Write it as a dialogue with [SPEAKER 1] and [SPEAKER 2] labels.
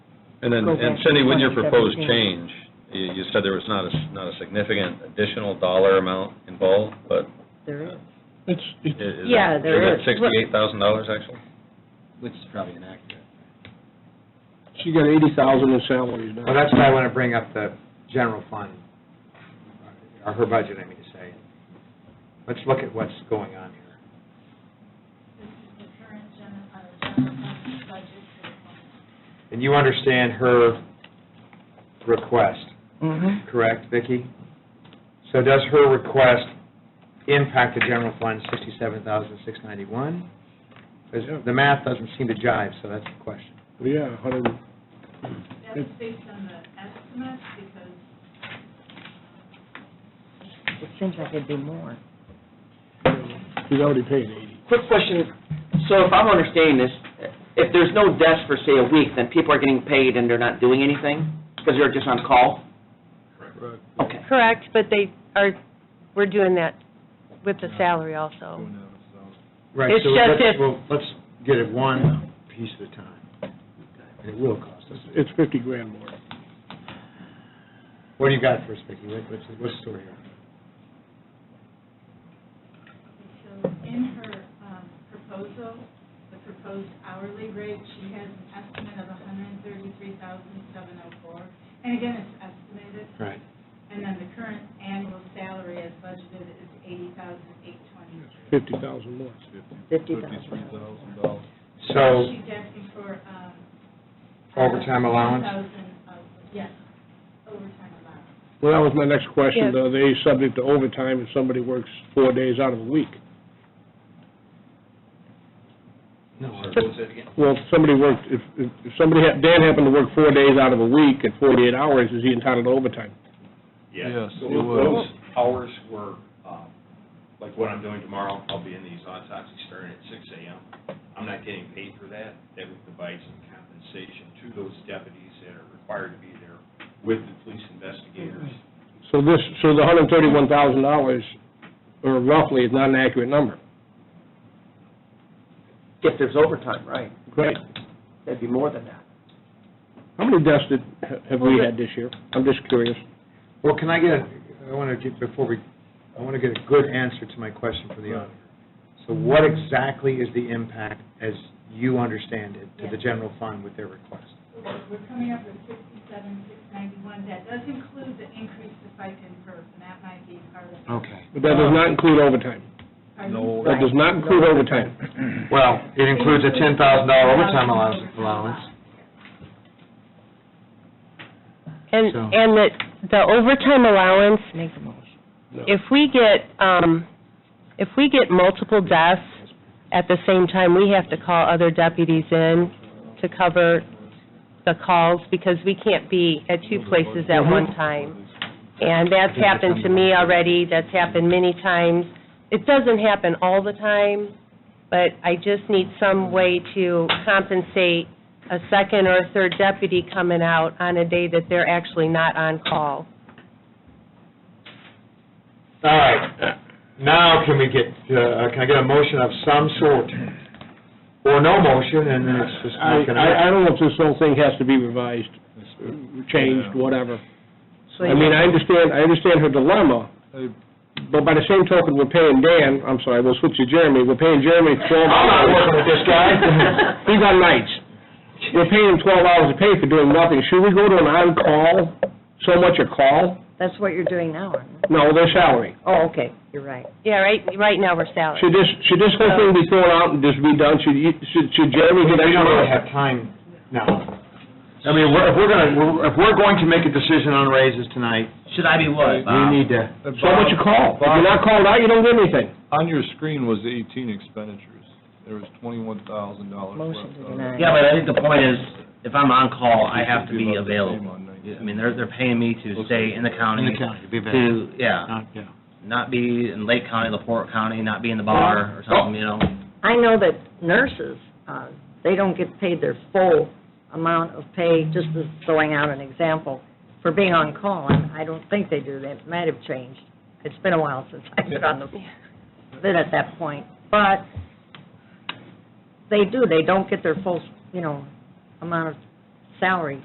[SPEAKER 1] And then,
[SPEAKER 2] Go
[SPEAKER 1] and
[SPEAKER 2] back to
[SPEAKER 1] Cindy, with your proposed
[SPEAKER 2] 2017.
[SPEAKER 1] change, you, you said there was not a, s- not a significant additional dollar amount involved, but
[SPEAKER 2] There is.
[SPEAKER 3] It's,
[SPEAKER 1] i- is
[SPEAKER 3] it's,
[SPEAKER 1] it?
[SPEAKER 2] Yeah, there is.
[SPEAKER 1] sixty-eight thousand dollars actually?
[SPEAKER 4] Which is probably inaccurate.
[SPEAKER 3] she got eighty thousand in salaries now.
[SPEAKER 5] Well, that's why I want to bring up the general fund, or her budget, I mean to say. Let's look at what's going on here.
[SPEAKER 6] This is the current gen, uh, general fund budget for the fund.
[SPEAKER 5] And you understand her request,
[SPEAKER 2] Mm-hmm.
[SPEAKER 5] correct, Vicki? So does her request impact the general fund sixty-seven thousand, six ninety-one? Because the math doesn't seem to jive, so that's the question.
[SPEAKER 3] Yeah, hundred,
[SPEAKER 6] That's based on the estimates because
[SPEAKER 2] It seems like it'd be more.
[SPEAKER 3] she's already paying eighty.
[SPEAKER 7] Quick question, so if I'm understanding this, if there's no desk for, say, a week, then people are getting paid and they're not doing anything? Because they're just on call?
[SPEAKER 3] Right.
[SPEAKER 7] Okay.
[SPEAKER 8] Correct, but they are, we're doing that with the salary also.
[SPEAKER 5] Right,
[SPEAKER 8] It's
[SPEAKER 5] so
[SPEAKER 8] just
[SPEAKER 5] let's,
[SPEAKER 8] if-
[SPEAKER 5] well, let's get it one piece at a time. And it will cost us.
[SPEAKER 3] It's fifty grand more.
[SPEAKER 5] What do you got for us, Vicki? What- What's, what's the story here?
[SPEAKER 6] So in her um, proposal, the proposed hourly rate, she has an estimate of $133,704. And again, it's estimated.
[SPEAKER 5] Right.
[SPEAKER 6] And then the current annual salary as budgeted is $80,820.
[SPEAKER 3] Fifty thousand more.
[SPEAKER 2] Fifty thousand.
[SPEAKER 5] So
[SPEAKER 6] She's asking for... um,
[SPEAKER 5] Overtime allowance?
[SPEAKER 6] $10,000 of- Yes, overtime allowance.
[SPEAKER 3] Well, that was my next question,
[SPEAKER 8] Yeah.
[SPEAKER 3] though, they subject to overtime if somebody works four days out of the week. Well, if somebody worked, if, if if somebody, had- Dan happened to work four days out of a week at forty-eight hours, is he entitled to overtime?
[SPEAKER 9] Yes, Those hours were, um, like what I'm doing tomorrow, I'll be in these autopsies starting at six AM. I'm not getting paid for that. That would provide some compensation to those deputies that are required to be there with the police investigators.
[SPEAKER 3] So this, so the hundred and thirty-one thousand dollars, or roughly, is not an accurate number.
[SPEAKER 7] If there's overtime, right?
[SPEAKER 3] Great.
[SPEAKER 7] That'd be more than that.
[SPEAKER 3] How many deaths did, have we had this year? I'm just curious.
[SPEAKER 5] Well, can I get, a- I want to get, before we, I want to get a good answer to my question from the auditor. So what exactly is the impact, as you understand it, to the general fund with their request?
[SPEAKER 6] We're we're coming up with sixty-seven, six ninety-one. That does include the increase to FICA and PERS, and that might be part of.
[SPEAKER 5] Okay.
[SPEAKER 3] But that does not include overtime.
[SPEAKER 6] Pardon?
[SPEAKER 3] That does not include overtime.
[SPEAKER 5] Well, it includes a ten thousand dollar overtime allowance, allowance.
[SPEAKER 8] And,
[SPEAKER 5] So-
[SPEAKER 8] and that the overtime allowance,
[SPEAKER 2] Make a motion.
[SPEAKER 8] if we get, um, if we get multiple deaths at the same time, we have to call other deputies in to cover the calls because we can't be at two places at one time. And that's happened to me already, that's happened many times. It doesn't happen all the time, but I just need some way to compensate a second or a third deputy coming out on a day that they're actually not on call.
[SPEAKER 5] All right, now can we get, uh, can I get a motion of some sort? Or no motion, and then it's just
[SPEAKER 3] I,
[SPEAKER 5] not gonna...
[SPEAKER 3] I, I don't know if this whole thing has to be revised, changed, whatever. I mean, I understand, I understand her dilemma, but by the same token, we're paying Dan, I'm sorry, we'll switch to Jeremy, we're paying Jeremy twelve
[SPEAKER 5] I'm
[SPEAKER 3] hours.
[SPEAKER 5] not working with this guy.
[SPEAKER 3] He's on nights. We're paying him twelve hours a pay for doing nothing. Should we go to an on-call, so much a call?
[SPEAKER 2] That's what you're doing now, aren't you?
[SPEAKER 3] No, their salary.
[SPEAKER 2] Oh, okay, you're right.
[SPEAKER 8] Yeah, right, right now, we're salaried.
[SPEAKER 3] Should this, should this whole thing be thrown out and just be done? Should, you- should should Jeremy
[SPEAKER 5] We
[SPEAKER 3] get
[SPEAKER 5] don't really
[SPEAKER 3] extra?
[SPEAKER 5] have time now. I mean, we're- if we're gonna, we're- if we're going to make a decision on raises tonight,
[SPEAKER 4] Should I be what,
[SPEAKER 5] we
[SPEAKER 4] Bob?
[SPEAKER 5] need to,
[SPEAKER 3] So much a call. If you're not called out, you don't get anything.
[SPEAKER 10] On your screen was 18 expenditures. There was $21,000 left. on
[SPEAKER 2] Motion to
[SPEAKER 10] it.
[SPEAKER 2] deny.
[SPEAKER 4] Yeah, but I think the point is, if I'm on call, I have to
[SPEAKER 10] Should
[SPEAKER 4] be
[SPEAKER 10] about the same
[SPEAKER 4] available.
[SPEAKER 10] on nineteen.
[SPEAKER 4] I mean, they're, they're paying me to stay in the county.
[SPEAKER 5] in the county, be better.
[SPEAKER 4] To, yeah,
[SPEAKER 5] Not- yeah.
[SPEAKER 4] not be in Lake County, LaPorte County, not be in the bar or something, you know?
[SPEAKER 2] I know that nurses, uh, they don't get paid their full amount of pay, just as throwing out an example, for being on call, and I don't think they do, that might have changed. It's been a while since I've been on the, been at that point, but they do, they don't get their full, you know, amount of salary